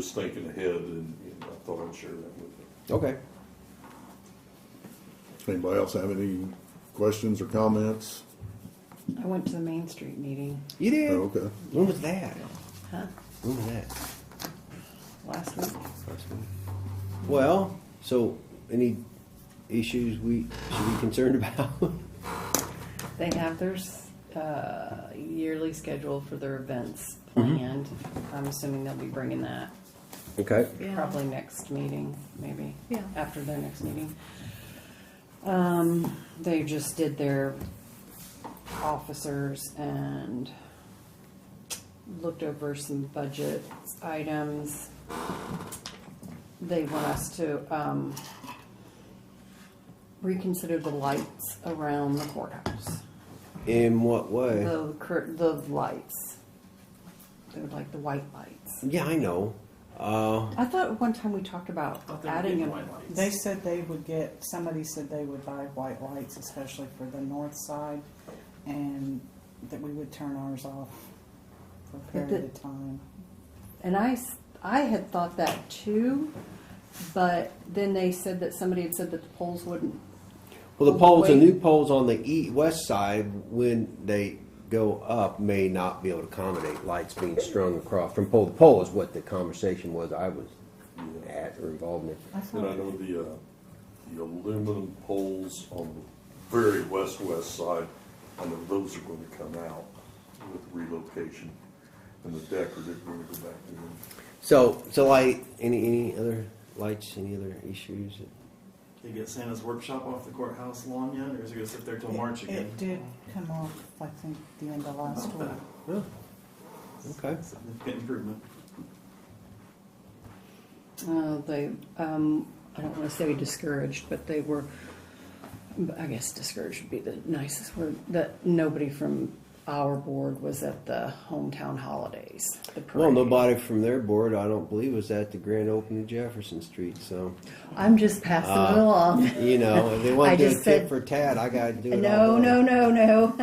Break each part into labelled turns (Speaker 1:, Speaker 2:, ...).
Speaker 1: Just thinking ahead and you know, I thought I'd share that with you.
Speaker 2: Okay.
Speaker 3: Anybody else have any questions or comments?
Speaker 4: I went to the Main Street meeting,
Speaker 2: You did.
Speaker 3: Oh, okay.
Speaker 2: When was that?
Speaker 4: huh,
Speaker 2: When was that?
Speaker 4: last week.
Speaker 2: Well, so any issues we should be concerned about?
Speaker 4: They have their s- uh, yearly schedule for their events planned. I'm assuming they'll be bringing that
Speaker 2: okay.
Speaker 5: Yeah.
Speaker 4: probably next meeting, maybe.
Speaker 5: Yeah.
Speaker 4: After their next meeting. Um, they just did their officers and looked over some budget items. They want us to, um, reconsider the lights around the courthouse.
Speaker 2: In what way?
Speaker 4: The, cur- the lights. They're like the white lights.
Speaker 2: yeah, I know. Uh,
Speaker 4: I thought one time we talked about
Speaker 6: Thought they were
Speaker 4: adding
Speaker 6: getting
Speaker 4: them.
Speaker 6: white lights.
Speaker 7: They said they would get, somebody said they would buy white lights, especially for the north side, and that we would turn ours off for a
Speaker 4: But
Speaker 7: period
Speaker 4: the-
Speaker 7: of time.
Speaker 4: And I, s- I had thought that too, but then they said that somebody had said that the poles wouldn't.
Speaker 2: well, the poles, the
Speaker 4: Oh, Wait.
Speaker 2: new poles on the e- west side, when they go up, may not be able to accommodate lights being strung across from pole to pole. Is what the conversation was I was at or involved in.
Speaker 7: I
Speaker 1: And I
Speaker 7: thought,
Speaker 1: know the, uh, the aluminum poles on the very west-west side, I know those are gonna come out with relocation. And the deck are just gonna go back in.
Speaker 2: So, so like any any other lights, any other issues?
Speaker 6: They get Santa's workshop off the courthouse lawn yet, or is it gonna sit there till March
Speaker 7: it,
Speaker 6: again?
Speaker 7: it did come off, I think, the end of last week.
Speaker 2: Oh, okay.
Speaker 6: Significant improvement.
Speaker 4: Uh, they, um, I don't want to say discouraged, but they were. I guess discouraged would be the nicest word. That nobody from our board was at the hometown holidays. The
Speaker 2: Well,
Speaker 4: parade.
Speaker 2: nobody from their board, I don't believe, was at the grand opening of Jefferson Street. So,
Speaker 4: I'm just passing it
Speaker 2: Uh,
Speaker 4: along.
Speaker 2: you know, if they
Speaker 4: I
Speaker 2: want to do a
Speaker 4: just
Speaker 2: tit
Speaker 4: said-
Speaker 2: for tat, I got to do it.
Speaker 4: No, no, no, no.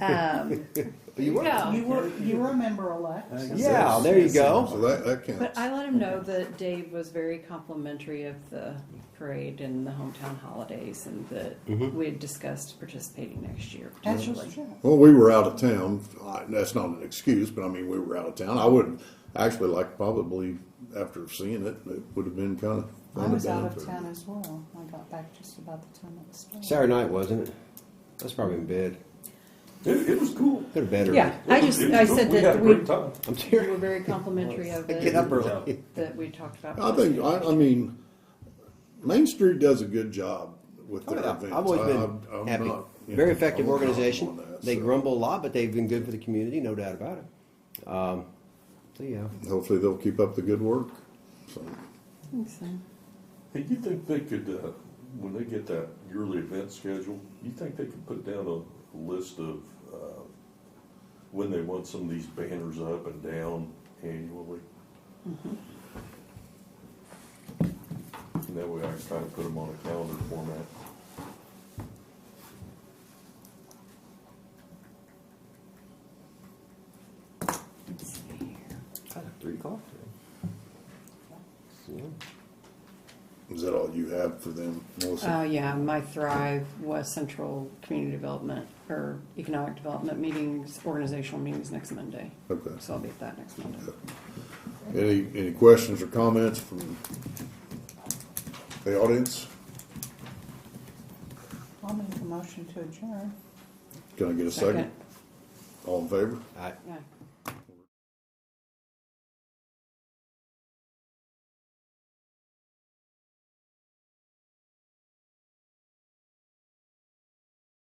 Speaker 4: Um,
Speaker 2: You were?
Speaker 4: Oh.
Speaker 7: You were, you were a member-elect.
Speaker 2: Yeah, there you
Speaker 3: So
Speaker 2: go.
Speaker 3: that, that
Speaker 4: But
Speaker 3: counts.
Speaker 4: I let him know that Dave was very complimentary of the parade and the hometown holidays, and that we had discussed participating next year.
Speaker 7: That's just,
Speaker 4: potentially.
Speaker 7: yeah.
Speaker 3: Well, we were out of town. I- That's not an excuse, but I mean, we were out of town. I would actually like probably after seeing it, it would have been kind of.
Speaker 7: I was out of town as well. I got back just about the time it was. started.
Speaker 2: Saturday night, wasn't it? I was probably in bed.
Speaker 1: It, it was cool.
Speaker 2: Could have been early.
Speaker 4: Yeah, I just
Speaker 1: It was
Speaker 4: I
Speaker 1: cool.
Speaker 4: said
Speaker 1: We had a
Speaker 4: that we,
Speaker 1: great time.
Speaker 2: I'm
Speaker 4: we
Speaker 2: serious.
Speaker 4: were very complimentary of
Speaker 2: I get
Speaker 4: it,
Speaker 2: up early.
Speaker 4: that we talked about.
Speaker 3: I think, I, I mean, Main Street does a good job with
Speaker 2: Oh,
Speaker 3: their
Speaker 2: yeah.
Speaker 3: events.
Speaker 2: I've always
Speaker 3: I-
Speaker 2: been
Speaker 3: I'm- I'm
Speaker 2: happy.
Speaker 3: not, you
Speaker 2: Very
Speaker 3: know,
Speaker 2: effective
Speaker 3: I'm not
Speaker 2: organization.
Speaker 3: on that,
Speaker 2: they
Speaker 3: so.
Speaker 2: grumble a lot, but they've been good for the community, no doubt about it. Um, so yeah.
Speaker 3: Hopefully they'll keep up the good work. So,
Speaker 4: think so.
Speaker 1: Hey, you think they could, uh, when they get that yearly event schedule, you think they could put down a list of, uh, when they want some of these banners up and down annually? And that way I can kind of put them on a calendar format.
Speaker 4: Let's see here.
Speaker 2: Three o'clock. Yeah.
Speaker 3: is that all you have for them, Melissa?
Speaker 4: Uh, yeah, my Thrive was Central Community Development or Economic Development meetings, organizational meetings next Monday.
Speaker 7: Uh,
Speaker 3: Okay.
Speaker 4: So I'll be at that next Monday.
Speaker 3: Any, any questions or comments from the audience?
Speaker 7: I'll make a motion to adjourn.
Speaker 3: Can I get a second? All in favor?
Speaker 2: I,
Speaker 4: Yeah.